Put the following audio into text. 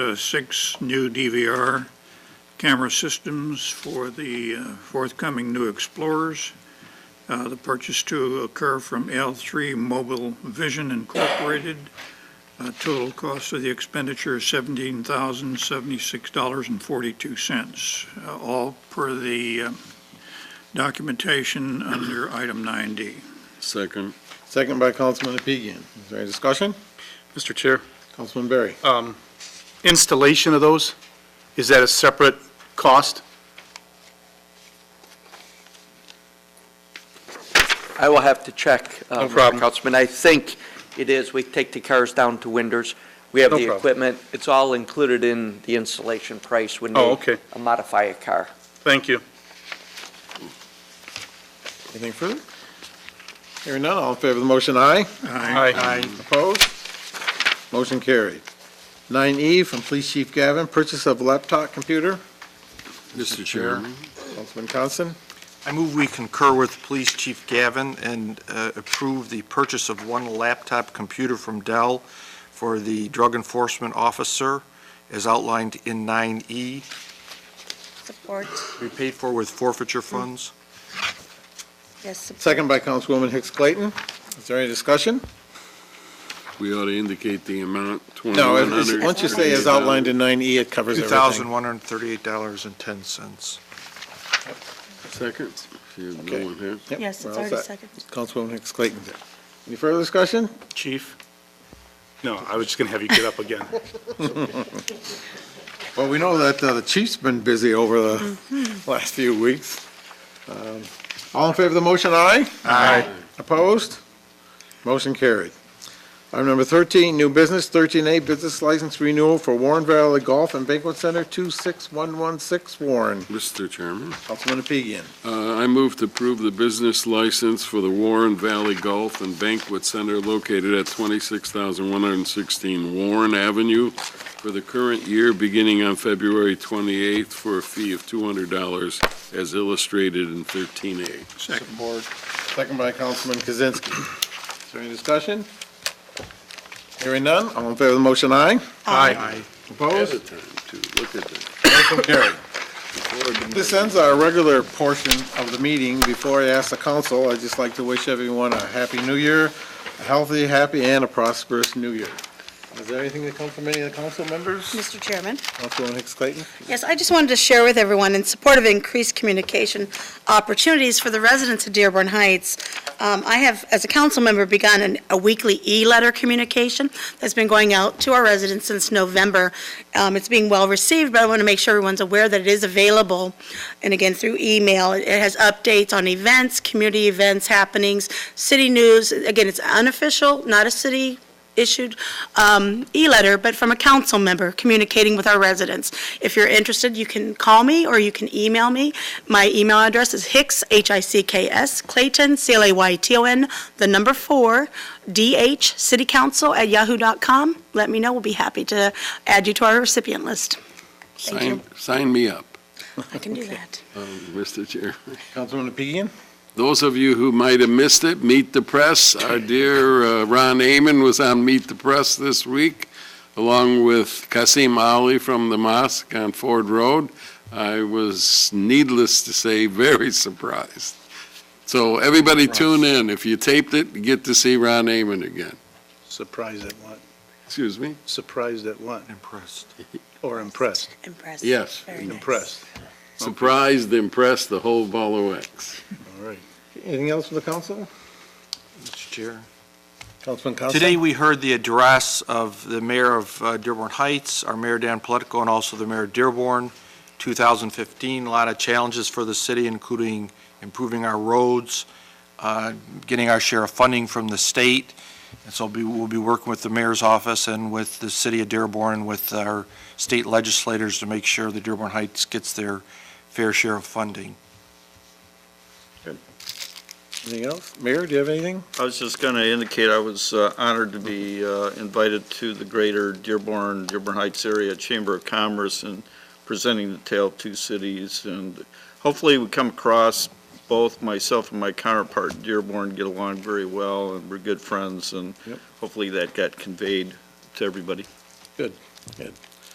uh, six new DVR camera systems for the uh, forthcoming new Explorers. Uh, The purchase to occur from L3 Mobile Vision Incorporated. Uh, Total cost of the expenditure, $17,076.42, uh, all per the uh, documentation under item 9D. Second. Second by Councilman Apigian. Is there any discussion? Mr. Chair, Councilman Berry. um, installation of those, is that a separate cost? I will have to check. uh, No problem. Councilman, I think it is, we take the cars down to Winders, we have No the problem. equipment, it's all included in the installation price when Oh, they okay. modify a car. Thank you. Anything further? Hearing none, all in favor of the motion, aye. Aye. Opposed? Motion carried. 9E from Police Chief Gavin, purchase of laptop computer. Mr. Chairman. Councilman Constant. I move we concur with Police Chief Gavin and uh, approve the purchase of one laptop computer from Dell for the Drug Enforcement Officer, as outlined in 9E, Support, be paid for with forfeiture funds. yes, support. Second by Councilwoman Hicks Clayton. Is there any discussion? Mm, We ought to indicate the amount, No, it's- it's- 2,100. once you say as outlined in 9E, it covers everything. $2,138.10. Second. If you have Okay. no one here. Yep, Yes, we're it's all already set. second. Councilwoman Hicks Clayton. Any further discussion? Chief? No, I was just going to have you get up again. Well, we know that uh, the chief's been busy over the last few weeks. Um, All in favor of the motion, aye? Aye. Opposed? Motion carried. Item number 13, new business, 13A, business license renewal for Warren Valley Golf and Banquet Center, 26116 Warren. Mr. Chairman, Councilman Apigian. uh, I move to approve the business license for the Warren Valley Golf and Banquet Center located at 26,116 Warren Avenue for the current year, beginning on February 28th, for a fee of $200, as illustrated in 13A. Second. Second by Councilman Kozinski. Is there any discussion? Hearing none, all in favor of the motion, aye? Aye. Opposed? Ahead of time, too. Look at that. Motion carried. This ends our regular portion of the meeting. Before I ask the council, I'd just like to wish everyone a happy new year, a healthy, happy, and a prosperous new year. Is there anything that comes from any of the council members? Mr. Chairman? Councilwoman Hicks Clayton? Yes, I just wanted to share with everyone, in support of increased communication opportunities for the residents of Dearborn Heights, um, I have, as a council member, begun an- a weekly e-letter communication that's been going out to our residents since November. Um, It's being well-received, but I want to make sure everyone's aware that it is available, and again, through email. It has updates on events, community events, happenings, city news. Again, it's unofficial, not a city issued um, e-letter, but from a council member communicating with our residents. If you're interested, you can call me or you can email me. My email address is hicks, H-I-C-K-S, Clayton, C-L-A-Y-T-O-N, the number four, D-H, citycouncil at yahoo.com. Let me know, we'll be happy to add you to our recipient list. Thank you. Sign- Sign me up, I can do that. um, Mr. Chair. Councilwoman Apigian? Those of you who might have missed it, Meet the Press, our dear uh, Ron Amon was on Meet the Press this week, along with Kasim Ali from the mosque on Ford Road. I was, needless to say, very surprised. So everybody tune in. If you taped it, you get to see Ron Amon again. Surprised at what? Excuse me? Surprised at what? Impressed. Or impressed? Impressed. Yes. Very nice. Impressed. Surprised, impressed, the whole ball of wax. All right. Anything else from the council? Mr. Chair. Councilman Constant? Today, we heard the address of the mayor of uh, Dearborn Heights, our mayor Dan Pletico, and also the mayor of Dearborn, 2015. A lot of challenges for the city, including improving our roads, uh, getting our share of funding from the state. And so be- we'll be working with the mayor's office and with the city of Dearborn and with our state legislators to make sure that Dearborn Heights gets their fair share of funding. Anything else? Mayor, do you have anything? I was just going to indicate I was uh, honored to be uh, invited to the Greater Dearborn, Dearborn Heights Area Chamber of Commerce and presenting the Tale of Two Cities. And hopefully we come across, both myself and my counterpart in Dearborn get along very well and we're good friends. And Yep. hopefully that got conveyed to everybody. Good.